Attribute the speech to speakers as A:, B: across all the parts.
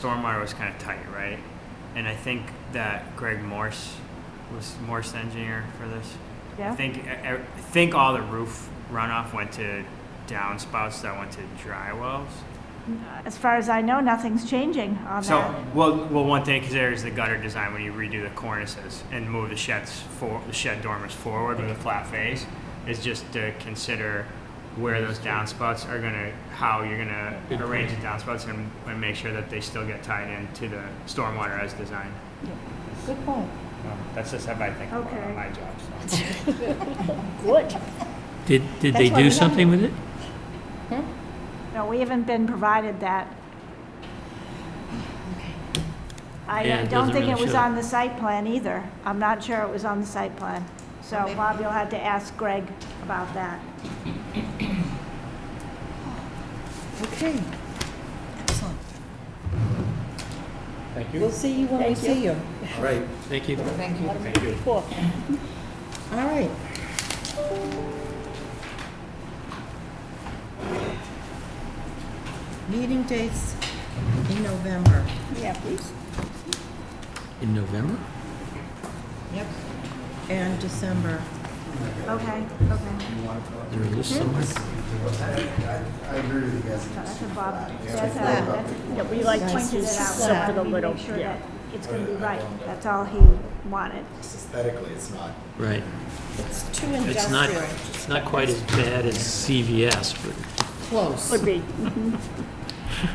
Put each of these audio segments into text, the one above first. A: stormwater was kind of tight, right? And I think that Greg Morse was Morse the engineer for this. I
B: Yeah?
A: think I, I think all the roof runoff went to downspouts that went to dry wells.
B: Uh, As far as I know, nothing's changing on
A: So,
B: that.
A: well, well, one thing to consider is the gutter design when you redo the cornices and move the sheds for the shed dormers forward with a flat face is just to consider where those downspouts are gonna, how you're gonna arrange the downspouts and, and make sure that they still get tied into the stormwater as designed.
C: Good point.
A: Um, That's just how I think about
B: Okay.
A: my job. so.
C: Good.
D: Did, did they
C: That's why we
D: do
C: have
D: something with it?
B: No, we haven't been provided that.
D: Yeah,
B: I I
D: it
B: don't
D: doesn't
B: think it
D: really
B: was
D: show.
B: on the site plan either. I'm not sure it was on the site plan. So Bob, you'll have to ask Greg about that.
C: Okay,
E: Excellent.
F: Thank
C: we'll
F: you.
C: see you when we see you.
F: All right.
D: Thank you.
E: Thank you.
F: Thank you.
C: Cool. All right.
E: Meeting dates in November.
C: Yeah, please.
D: In November?
E: Yep. And December.
B: Okay, okay.
D: There a list somewhere?
G: I agree with you guys.
B: That's a Bob.
E: a- that's
B: We like
C: pointed it out, something a little- yeah.
B: It's going to be right. That's all he wanted.
G: Aesthetically, it's not.
D: Right.
E: It's too
D: It's not,
E: industrial.
D: it's not quite as bad as CVS, but
E: Close.
C: Would be.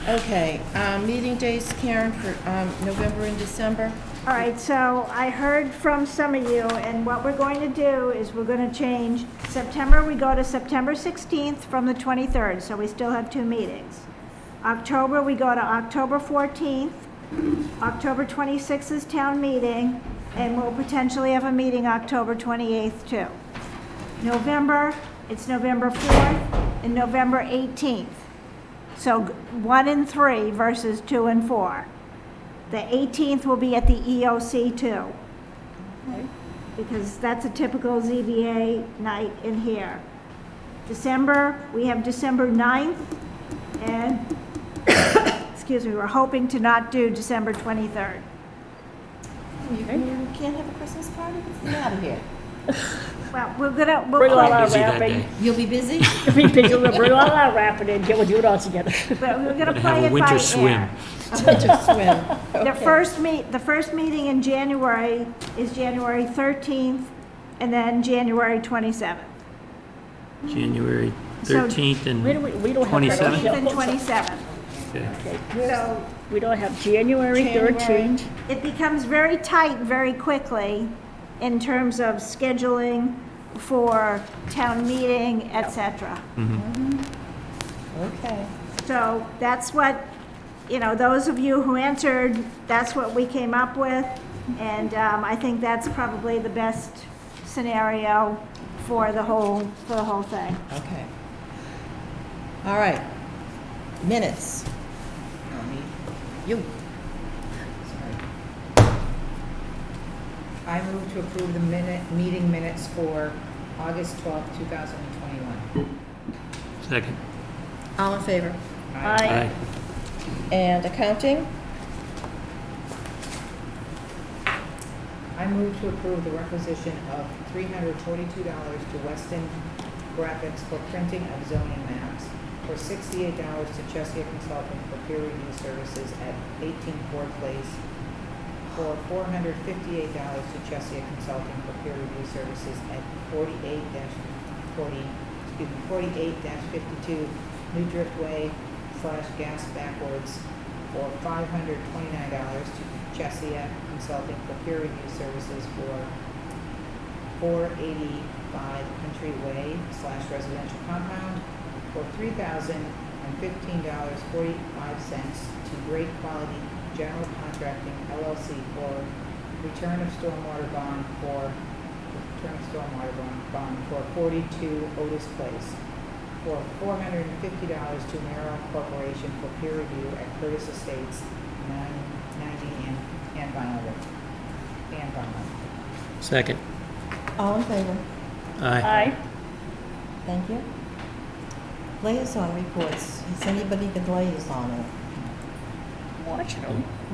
E: Okay, uh, meeting dates, Karen, for um, November and December?
B: All right, so I heard from some of you, and what we're going to do is we're going to change September, we go to September 16th from the 23rd, so we still have two meetings. October, we go to October 14th. October 26th is town meeting, and we'll potentially have a meeting October 28th, too. November, it's November 4th and November 18th. So g- one and three versus two and four. The 18th will be at the EOC too. Because that's a typical ZBA night in here. December, we have December 9th, and, excuse me, we're hoping to not do December 23rd.
E: You you can't have a Christmas party? What's the matter here?
B: Well, we're gonna, we'll,
H: Bring all
B: but
H: our
D: busy that
H: wrapping,
D: day.
E: You'll be busy?
H: we pick it up, bring all our wrapping and get, we'll do it all together.
B: we're gonna
D: have
B: play
D: a
B: it
D: winter
B: by
D: swim.
B: ear.
E: Winter swim.
B: The
E: Okay.
B: first meet, the first meeting in January is January 13th, and then January 27th.
D: January
B: So-
D: 13th
H: We don't, we don't have.
D: 27?
B: 13th and 27th.
D: and,
B: So
H: We don't have January
E: January.
H: thirteenth.
B: it becomes very tight very quickly in terms of scheduling for town meeting, et cetera.
E: Okay.
B: So that's what, you know, those of you who answered, that's what we came up with. And um, I think that's probably the best scenario for the whole, for the whole thing.
E: Okay. All right. Minutes. Not me. You.
I: I move to approve the minute, meeting minutes for August twelfth, two thousand and twenty-one.
D: second.
E: All in favor?
D: Aye.
E: And accounting?
I: I move to approve the requisition of three hundred forty-two dollars to Weston Graphics for printing of zoning maps, for sixty-eight dollars to Chesia Consulting for peer review services at eighteen Ford Place, for four hundred fifty-eight dollars to Chesia Consulting for peer review services at forty-eight forty, excuse me, forty-eight fifty-two New Driftway slash Gas Backwards, for five hundred twenty-nine dollars to Chesia Consulting for peer review services for four eighty-five Country Way slash residential compound for three thousand and fifteen dollars forty-five cents to Great Quality General Contracting LLC for return of stormwater bond for, return of stormwater bond, bond for forty-two Otis Place for four hundred and fifty dollars to Merrill Corporation for peer review at Curtis Estates, nine ninety and, and Vinyl Road, and Vinyl.
D: Second.
E: All in favor?
D: Aye.
H: Aye.
E: Thank you. Liaison reports. Has anybody been liaison?
I: No,
H: watching them.